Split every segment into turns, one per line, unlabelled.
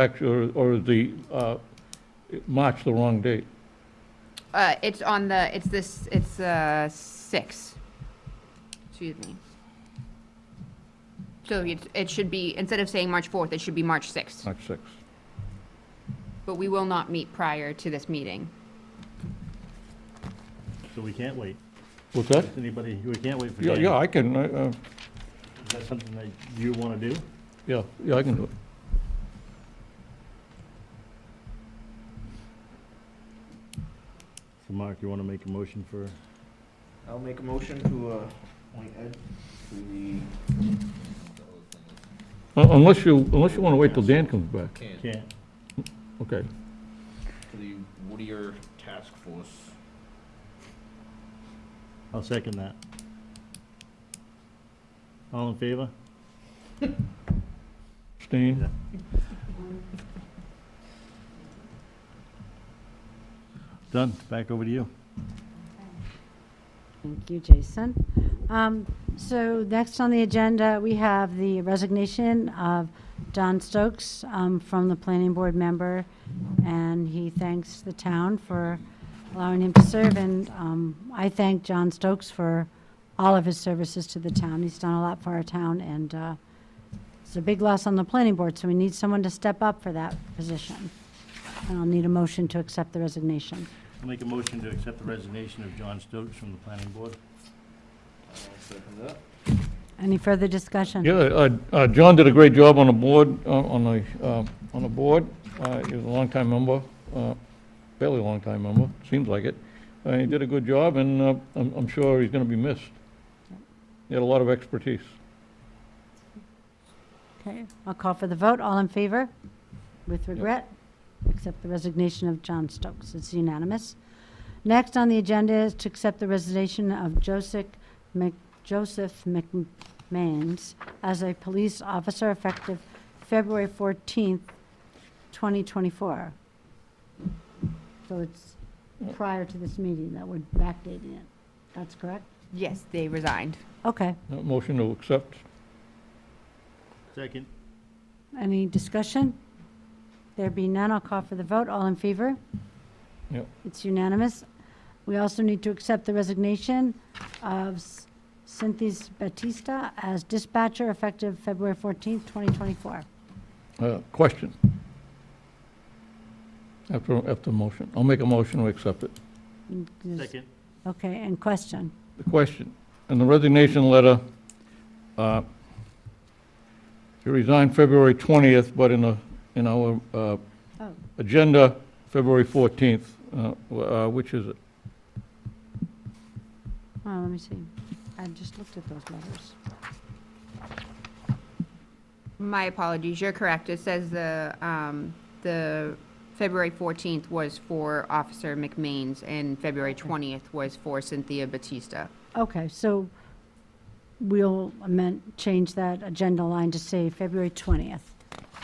Act- Or, or the, uh, March, the wrong date.
Uh, it's on the, it's this, it's, uh, six. Excuse me. So it, it should be, instead of saying March fourth, it should be March sixth,
March 6.
but we will not meet prior to this meeting.
So we can't wait.
What's that?
Does anybody, we can't wait for
Yeah,
Dan.
yeah, I can, I, uh,
Is that something that you want to do?
yeah, yeah, I can do it.
So Mark, you want to make a motion for,
I'll make a motion to uh, appoint Ed to the,
Un- Uh, Unless you, unless you want to wait till Dan comes back.
to
can't,
Okay.
the Whittier Task Force.
I'll second that. All in favor?
Stain?
Done, back over to you.
Thank you, Jason. Um, So next on the agenda, we have the resignation of John Stokes um, from the Planning Board member, and he thanks the town for allowing him to serve, and um, I thank John Stokes for all of his services to the town. He's done a lot for our town, and uh, it's a big loss on the Planning Board, so we need someone to step up for that position. And I'll need a motion to accept the resignation.
I'll make a motion to accept the resignation of John Stokes from the planning board.
I'll second that.
Any further discussion?
Yeah, uh, uh, John did a great job on the board, uh, on the, uh, on the board. Uh, He was a longtime member, uh, fairly long-time member, seems like it. Uh, He did a good job, and uh, I'm I'm sure he's going to be missed. He had a lot of expertise.
Okay, I'll call for the vote. All in favor? With regret, accept the resignation of John Stokes. It's unanimous. Next on the agenda is to accept the resignation of Joseph Mc, Joseph McMains as a police officer effective February fourteenth, twenty twenty-four. So it's prior to this meeting that we're backdating it. That's correct?
Yes, they resigned.
Okay,
Uh, Motion to accept?
Second.
any discussion? There be none, I'll call for the vote. All in favor?
Yep.
It's unanimous. We also need to accept the resignation of S- Cynthia Batista as dispatcher effective February 14th, 2024.
Uh, Question? After, after motion. I'll make a motion to accept it.
Mm, is-
Second.
Okay, and question.
The question, in the resignation letter, uh, you resigned February 20th, but in a, in our uh,
Oh.
agenda, February 14th, uh, w- uh, which is it?
Oh, let me see. I just looked at those letters.
My apologies, you're correct. It says the, um, the February fourteenth was for Officer McMains and February twentieth was for Cynthia Batista.
Okay, so we'll amend, change that agenda line to say February 20th.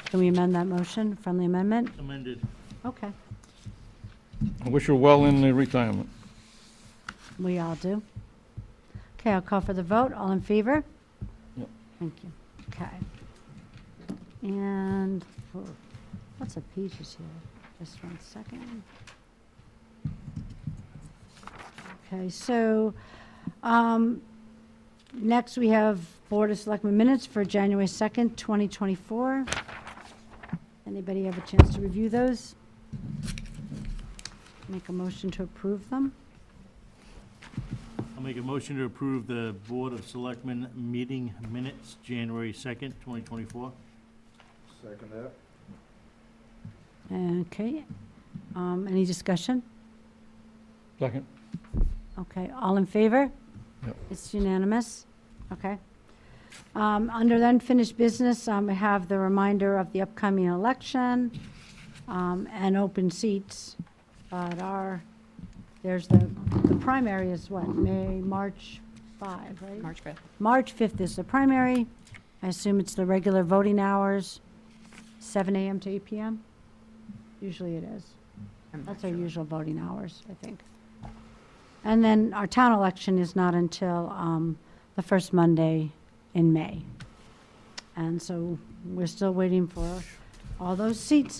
Can we amend that motion, friendly amendment?
Amended.
Okay,
I wish her well in the retirement.
we all do. Okay, I'll call for the vote. All in favor?
Yep.
Thank you. Okay. And, oh, lots of pages here. Just one second. Okay, so, um, next we have Board of Selectmen minutes for January 2nd, 2024. Anybody have a chance to review those? Make a motion to approve them?
I'll make a motion to approve the Board of Selectmen meeting minutes, January 2nd, 2024.
Second that.
Okay, um, any discussion?
Second?
Okay, all in favor?
Yep.
It's unanimous, okay. Um, under the unfinished business, um, we have the reminder of the upcoming election, um, and open seats. But our, there's the, the primary is what, May, March five, right?
March fifth.
March fifth is the primary. I assume it's the regular voting hours, seven AM to eight PM? Usually it is.
I'm not
That's our
sure.
usual voting hours, I think. And then our town election is not until um, the first Monday in May. And so we're still waiting for all those seats